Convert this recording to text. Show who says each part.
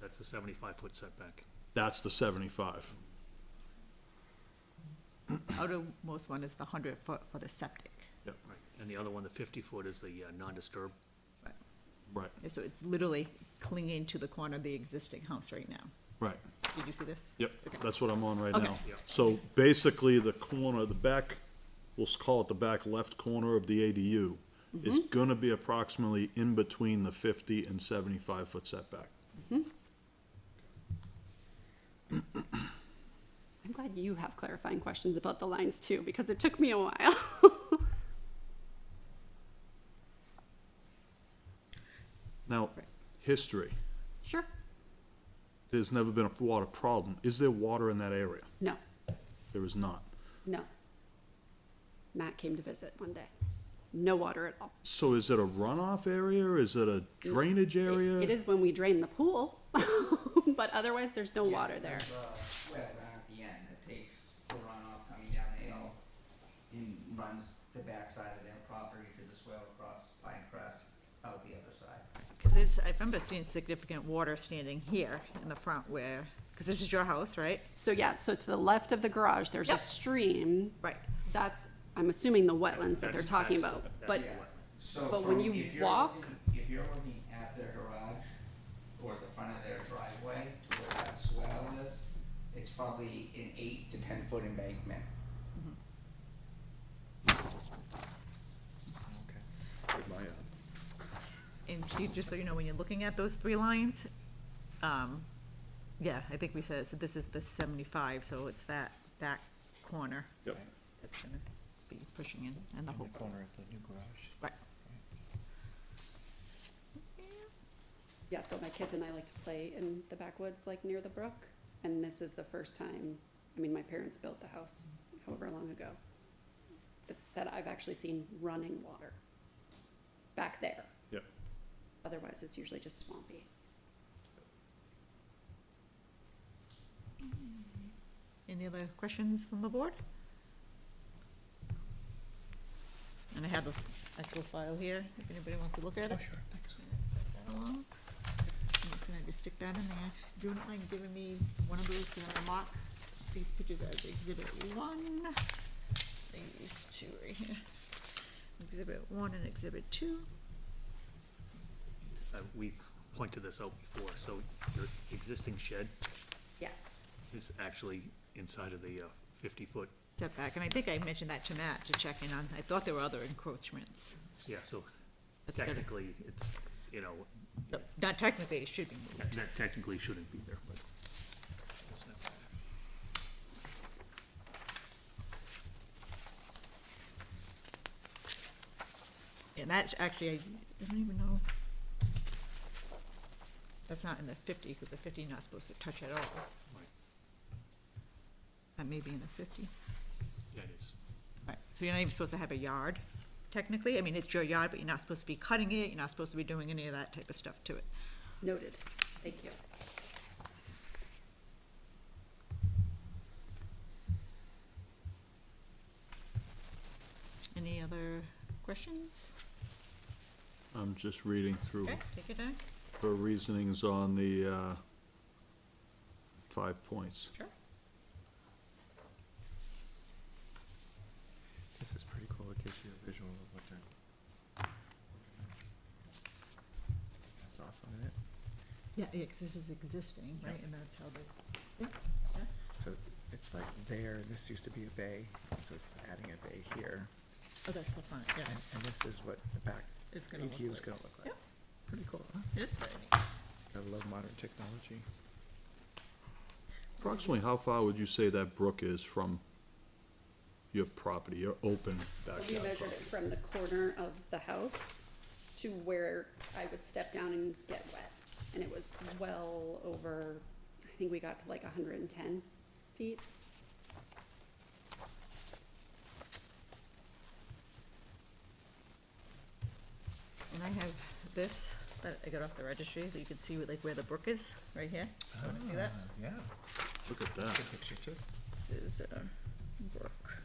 Speaker 1: That's the seventy-five foot setback.
Speaker 2: That's the seventy-five.
Speaker 3: outermost one is the hundred foot for the septic.
Speaker 1: Right. And the other one, the fifty foot, is the uh, non-disturb.
Speaker 2: Right,
Speaker 3: Yeah, So it's literally clinging to the corner of the existing house right now.
Speaker 2: right.
Speaker 3: Did you see this?
Speaker 2: Yep,
Speaker 3: Okay.
Speaker 2: that's what I'm on right
Speaker 3: Okay.
Speaker 2: now.
Speaker 1: Yep.
Speaker 2: So basically, the corner, the back, we'll s- call it the back left corner of the ADU is gonna be approximately in between the fifty and seventy-five foot setback.
Speaker 4: I'm glad you have clarifying questions about the lines too, because it took me a while.
Speaker 2: Now,
Speaker 3: Right.
Speaker 2: history,
Speaker 4: Sure.
Speaker 2: there's never been a water problem. Is there water in that area?
Speaker 4: No,
Speaker 2: There is not.
Speaker 4: no. Matt came to visit one day. No water at all.
Speaker 2: So is it a runoff area? Is it a drainage
Speaker 4: It-
Speaker 2: area?
Speaker 4: It is when we drain the pool, but otherwise there's no water there.
Speaker 5: There's a wetland at the end that takes the runoff coming down the hill and runs the backside of their property to the swale across Pine Crest out the other side.
Speaker 3: Because there's, I remember seeing significant water standing here in the front where, because this is your house, right?
Speaker 4: So yeah, so to the left of the garage, there's a
Speaker 3: Yep.
Speaker 4: stream.
Speaker 3: Right.
Speaker 4: That's, I'm assuming the wetlands that they're
Speaker 1: That's-
Speaker 4: talking
Speaker 1: that's-
Speaker 4: about,
Speaker 1: that's
Speaker 4: but
Speaker 1: the wetland.
Speaker 5: So
Speaker 4: But
Speaker 5: from,
Speaker 4: when
Speaker 5: if
Speaker 4: you
Speaker 5: you're
Speaker 4: walk-
Speaker 5: looking, if you're looking at their garage or the front of their driveway to where that swale is, it's probably an eight to ten foot embankment.
Speaker 3: And Steve, just so you know, when you're looking at those three lines, um, yeah, I think we said, it. so this is the seventy-five, so it's that back corner.
Speaker 2: Yep.
Speaker 3: That's gonna be pushing in, and the whole,
Speaker 6: corner of the new garage.
Speaker 3: right.
Speaker 4: yeah, so my kids and I like to play in the backwoods, like near the brook. And this is the first time, I mean, my parents built the house however long ago, that, that I've actually seen running water back there.
Speaker 2: Yep.
Speaker 4: Otherwise, it's usually just swampy.
Speaker 3: Any other questions from the board? And I have a f- actual file here, if anybody wants to look at it.
Speaker 6: Oh, sure, thanks.
Speaker 3: Along. I'm just gonna just stick that in there. Do you not mind giving me one of those, and I mark these pictures as exhibit one? These two right here. Exhibit one and exhibit two.
Speaker 1: Uh, We've pointed this out before, so your existing shed
Speaker 4: Yes.
Speaker 1: is actually inside of the uh, fifty foot,
Speaker 3: Step back, and I think I mentioned that to Matt to check in on, I thought there were other encroachments.
Speaker 1: yeah, so
Speaker 3: That's gotta-
Speaker 1: technically, it's, you know,
Speaker 3: Not technically, it should be moved.
Speaker 1: that that technically shouldn't be there, but. it's not.
Speaker 3: And that's actually, I don't even know. That's not in the fifty, because the fifty not supposed to touch at all.
Speaker 1: Right.
Speaker 3: That may be in the fifty.
Speaker 1: Yeah, it is.
Speaker 3: Right, so you're not even supposed to have a yard, technically. I mean, it's your yard, but you're not supposed to be cutting it, you're not supposed to be doing any of that type of stuff to it.
Speaker 4: Noted. Thank you.
Speaker 3: Any other questions?
Speaker 2: I'm just reading through
Speaker 3: Okay, take your time.
Speaker 2: her reasonings on the, uh, five points.
Speaker 3: Sure.
Speaker 6: This is pretty cool, it gives you a visual of what they're. That's awesome, isn't it?
Speaker 3: Yeah, yeah, 'cause this is existing, right, and that's how they, yeah, yeah.
Speaker 6: So it's like there, this used to be a bay, so it's adding a bay here,
Speaker 3: Oh, that's the front, yeah,
Speaker 6: and, and this is what the back
Speaker 3: it's gonna look
Speaker 6: ADU is
Speaker 3: like.
Speaker 6: gonna look like.
Speaker 3: Yep.
Speaker 6: Pretty cool, huh?
Speaker 3: It is pretty neat.
Speaker 6: Gotta love modern technology.
Speaker 2: Approximately how far would you say that brook is from your property, your open
Speaker 4: So we
Speaker 2: backyard
Speaker 4: measured it
Speaker 2: property?
Speaker 4: from the corner of the house to where I would step down and get wet. And it was well over, I think we got to like hundred and ten feet.
Speaker 3: And I have this that I got off the registry, so you can see like where the brook is, right here. Wanna see that?
Speaker 6: Yeah,
Speaker 2: Look at that.
Speaker 6: good picture too.
Speaker 3: This is, uh, um, brook.